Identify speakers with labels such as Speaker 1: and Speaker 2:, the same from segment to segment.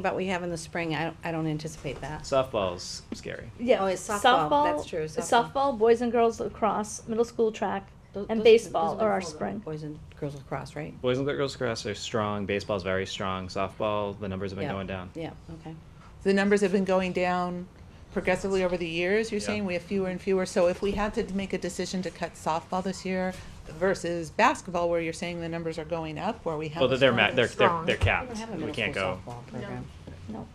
Speaker 1: about we have in the spring, I don't, I don't anticipate that.
Speaker 2: Softball's scary.
Speaker 1: Yeah, oh, it's softball, that's true, softball.
Speaker 3: softball, boys and girls lacrosse, middle school track,
Speaker 1: Tho-
Speaker 3: and
Speaker 1: those-
Speaker 3: baseball
Speaker 1: those
Speaker 3: are our
Speaker 1: fall under
Speaker 3: spring.
Speaker 1: Boys and girls lacrosse, right?
Speaker 2: Boys and girls cross are strong. Baseball's very strong. Softball, the numbers have been
Speaker 1: Yeah.
Speaker 2: going down.
Speaker 1: Yeah, okay.
Speaker 4: the numbers have been going down progressively over the years, you're
Speaker 2: Yeah.
Speaker 4: saying we have fewer and fewer, so if we had to make a decision to cut softball this year versus basketball, where you're saying the numbers are going up, where we have.
Speaker 2: Well,
Speaker 4: a
Speaker 2: they're ma-
Speaker 4: stronger-
Speaker 2: they're, they're
Speaker 5: Strong.
Speaker 2: they're
Speaker 1: We
Speaker 2: capped.
Speaker 1: don't have a
Speaker 2: We
Speaker 1: middle
Speaker 2: can't
Speaker 1: school
Speaker 2: go.
Speaker 1: softball program.
Speaker 3: No.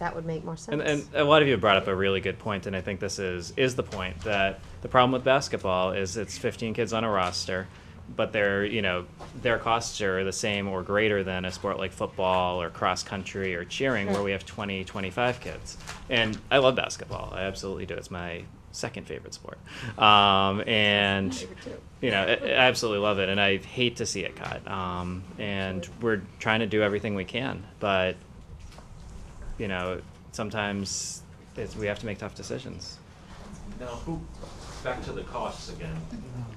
Speaker 5: That would make more
Speaker 2: And,
Speaker 5: sense.
Speaker 2: and a lot of you have brought up a really good point, and I think this is is the point that the problem with basketball is it's 15 kids on a roster, but their you know their costs are the same or greater than a sport like football or cross country or cheering where we have 20 25 kids. And I love basketball. I absolutely do. It's my second favorite sport. Um, and you know, I, I absolutely love it, and I hate to see it cut. Um, and we're trying to do everything we can, but you know, sometimes it's, we have to make tough decisions.
Speaker 6: Now, who, back to the costs again.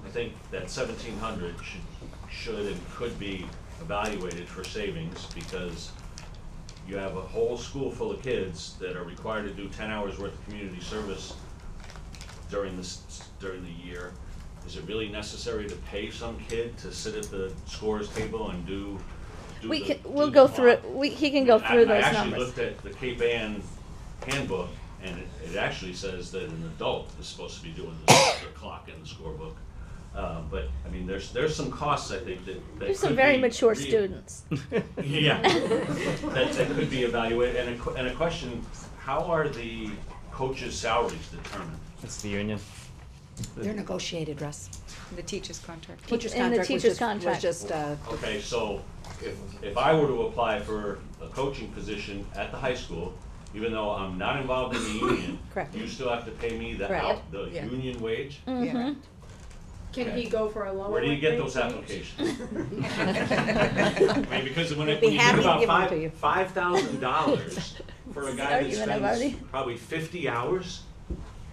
Speaker 6: I think that seventeen hundred should, should and could be evaluated for savings because you have a whole school full of kids that are required to do ten hours worth of community service during this, during the year. Is it really necessary to pay some kid to sit at the scores table and do, do
Speaker 3: We
Speaker 6: the-
Speaker 3: can,
Speaker 6: do
Speaker 3: we'll
Speaker 6: the
Speaker 3: go
Speaker 6: plot?
Speaker 3: through, we, he can go
Speaker 6: I-
Speaker 3: through
Speaker 6: I
Speaker 3: those
Speaker 6: actually
Speaker 3: numbers.
Speaker 6: looked at the Cape Ann handbook, and it, it actually says that an adult is supposed to be doing the the clock in the scorebook. Uh, but, I mean, there's, there's some costs, I think, that, that
Speaker 3: There's some
Speaker 6: could
Speaker 3: very
Speaker 6: be
Speaker 3: mature
Speaker 6: re-
Speaker 3: students.
Speaker 6: Yeah, that, that could be evaluated, and a, que- and a question, how are the coaches' salaries determined?
Speaker 2: It's the union.
Speaker 7: They're negotiated, Russ. The teacher's contract.
Speaker 1: Teacher's
Speaker 3: in the
Speaker 1: contract was
Speaker 3: teacher's
Speaker 1: just, was
Speaker 3: contract.
Speaker 1: just, uh,
Speaker 6: Okay, so if, if I were to apply for a coaching position at the high school, even though I'm not involved in the union,
Speaker 1: Correct.
Speaker 6: you still have to pay me the
Speaker 1: Correct.
Speaker 6: out, the
Speaker 7: Yeah.
Speaker 6: union wage?
Speaker 1: Mm-hmm.
Speaker 3: Mhm.
Speaker 8: Can he go for a lower?
Speaker 6: Where do you get those
Speaker 8: wage?
Speaker 6: applications? I mean, because when, it-
Speaker 1: be
Speaker 6: when you think
Speaker 1: happy to
Speaker 6: about
Speaker 1: give them to
Speaker 6: five,
Speaker 1: you.
Speaker 6: five thousand dollars for a guy
Speaker 3: Sorry,
Speaker 6: that
Speaker 3: you and I've already-
Speaker 6: spends probably fifty hours,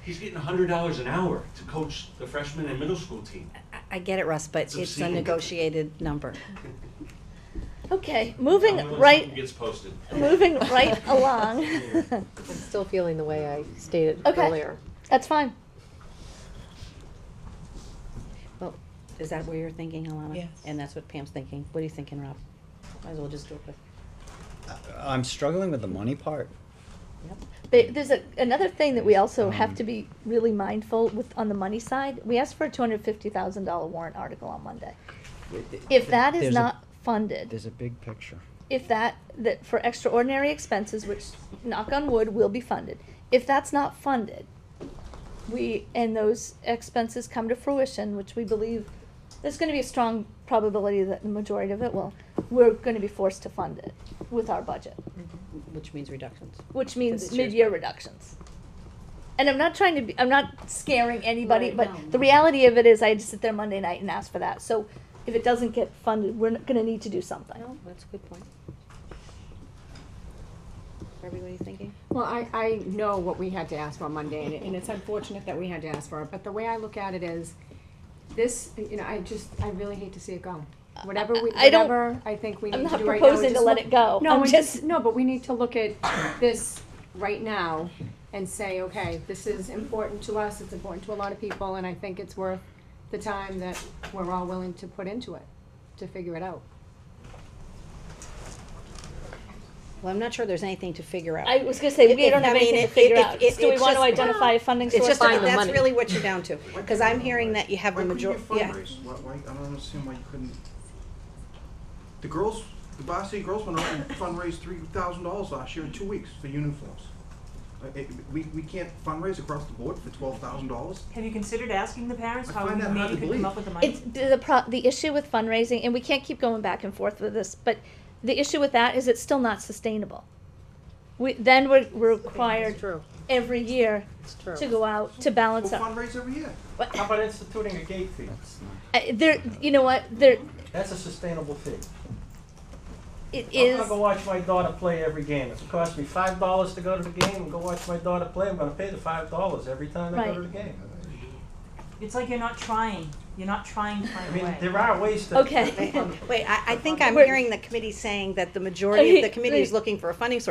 Speaker 6: he's getting a hundred dollars an hour to coach the freshman and middle school team.
Speaker 1: I- I get it, Russ, but
Speaker 6: It's
Speaker 1: it's a
Speaker 6: obscene.
Speaker 1: negotiated number.
Speaker 3: Okay,
Speaker 6: I wonder
Speaker 3: moving
Speaker 6: when something
Speaker 3: right,
Speaker 6: Gets posted.
Speaker 3: moving right along.
Speaker 5: I'm still feeling the way I stated
Speaker 3: Okay.
Speaker 5: earlier.
Speaker 3: That's fine.
Speaker 1: Well, is that where you're thinking, Alana?
Speaker 4: Yes.
Speaker 1: And that's what Pam's thinking. What are you thinking, Rob? Might as well just do it quick.
Speaker 9: I'm struggling with the money part.
Speaker 3: But there's a, another thing that we
Speaker 6: Um,
Speaker 3: also have to be really mindful with on the money side. We asked for a two hundred fifty thousand dollar warrant article on Monday. If that is
Speaker 9: There's a-
Speaker 3: not funded,
Speaker 9: There's a big picture.
Speaker 3: if that, that for extraordinary expenses, which knock on wood will be funded, if that's not funded, we, and those expenses come to fruition, which we believe, there's gonna be a strong probability that the majority of it will, we're gonna be forced to fund it with our budget
Speaker 1: Which means reductions.
Speaker 3: which
Speaker 1: this
Speaker 3: means
Speaker 1: year's
Speaker 3: mid-year reductions. And I'm not trying to be, I'm not scaring anybody,
Speaker 8: Right,
Speaker 3: but
Speaker 8: no.
Speaker 3: the reality of it is I had to sit there Monday night and ask for that. So if it doesn't get funded, we're not gonna need to do something.
Speaker 1: No, that's a good point. Everybody thinking?
Speaker 8: Well, I, I know what we had to ask for on Monday, and, it- and it's unfortunate that we had to ask for it, but the way I look at it is, this, you know, I just, I really hate to see it go. Whatever we,
Speaker 3: I- I don't-
Speaker 8: whatever I think we
Speaker 3: I'm
Speaker 8: need
Speaker 3: not
Speaker 8: to do right now. we
Speaker 3: proposing to
Speaker 8: just
Speaker 3: let
Speaker 8: look-
Speaker 3: it go. I'm
Speaker 8: No, and just,
Speaker 3: just-
Speaker 8: no, but we need to look at this right now and say, okay, this is important to us, it's important to a lot of people, and I think it's worth the time that we're all willing to put into it, to figure it out.
Speaker 1: Well, I'm not sure there's anything to figure out.
Speaker 3: I was gonna say, we
Speaker 1: If-
Speaker 3: don't
Speaker 1: I
Speaker 3: have
Speaker 1: mean,
Speaker 3: anything to
Speaker 1: if-
Speaker 3: figure
Speaker 1: if-
Speaker 3: out.
Speaker 1: if-
Speaker 3: Do we
Speaker 1: it's
Speaker 3: want to
Speaker 1: just-
Speaker 3: identify a funding
Speaker 1: It's
Speaker 3: source?
Speaker 1: just,
Speaker 5: Find the
Speaker 1: that's
Speaker 5: money.
Speaker 1: really what you're down to, because I'm hearing that you have the
Speaker 10: Why couldn't you
Speaker 1: majority, yeah.
Speaker 10: fundraise? Why, why, I don't understand why you couldn't. The girls, the Boston City girls went out and fundraised three thousand dollars last year in two weeks for uniforms. Uh, it- we, we can't fundraise across the board for twelve thousand dollars.
Speaker 11: Have you considered asking the parents
Speaker 10: I
Speaker 11: how
Speaker 10: find
Speaker 11: we
Speaker 10: that hard to
Speaker 11: maybe could come
Speaker 10: believe.
Speaker 11: up with the money?
Speaker 3: It's the the pro, the issue with fundraising, and we can't keep going back and forth with this, but the issue with that is it's still not sustainable. We, then we're, we're required
Speaker 5: True,
Speaker 3: every year
Speaker 5: it's true.
Speaker 3: to go out to balance
Speaker 10: We'll
Speaker 3: out.
Speaker 10: fundraise every year.
Speaker 11: How about instituting a gate fee?
Speaker 3: I- there, you know what? There,
Speaker 11: That's a sustainable fee.
Speaker 3: it is.
Speaker 11: watch my daughter play every game. It's cost me five dollars to go to the game and go watch my daughter play. I'm gonna pay the five dollars every time
Speaker 3: I go to Right.
Speaker 11: the game. It's like you're not trying. You're not trying to find a way. There are ways to.
Speaker 3: Okay.
Speaker 1: Wait, I, I think I'm
Speaker 3: We're-
Speaker 1: hearing the committee saying that the majority of the committee is looking for a funding source.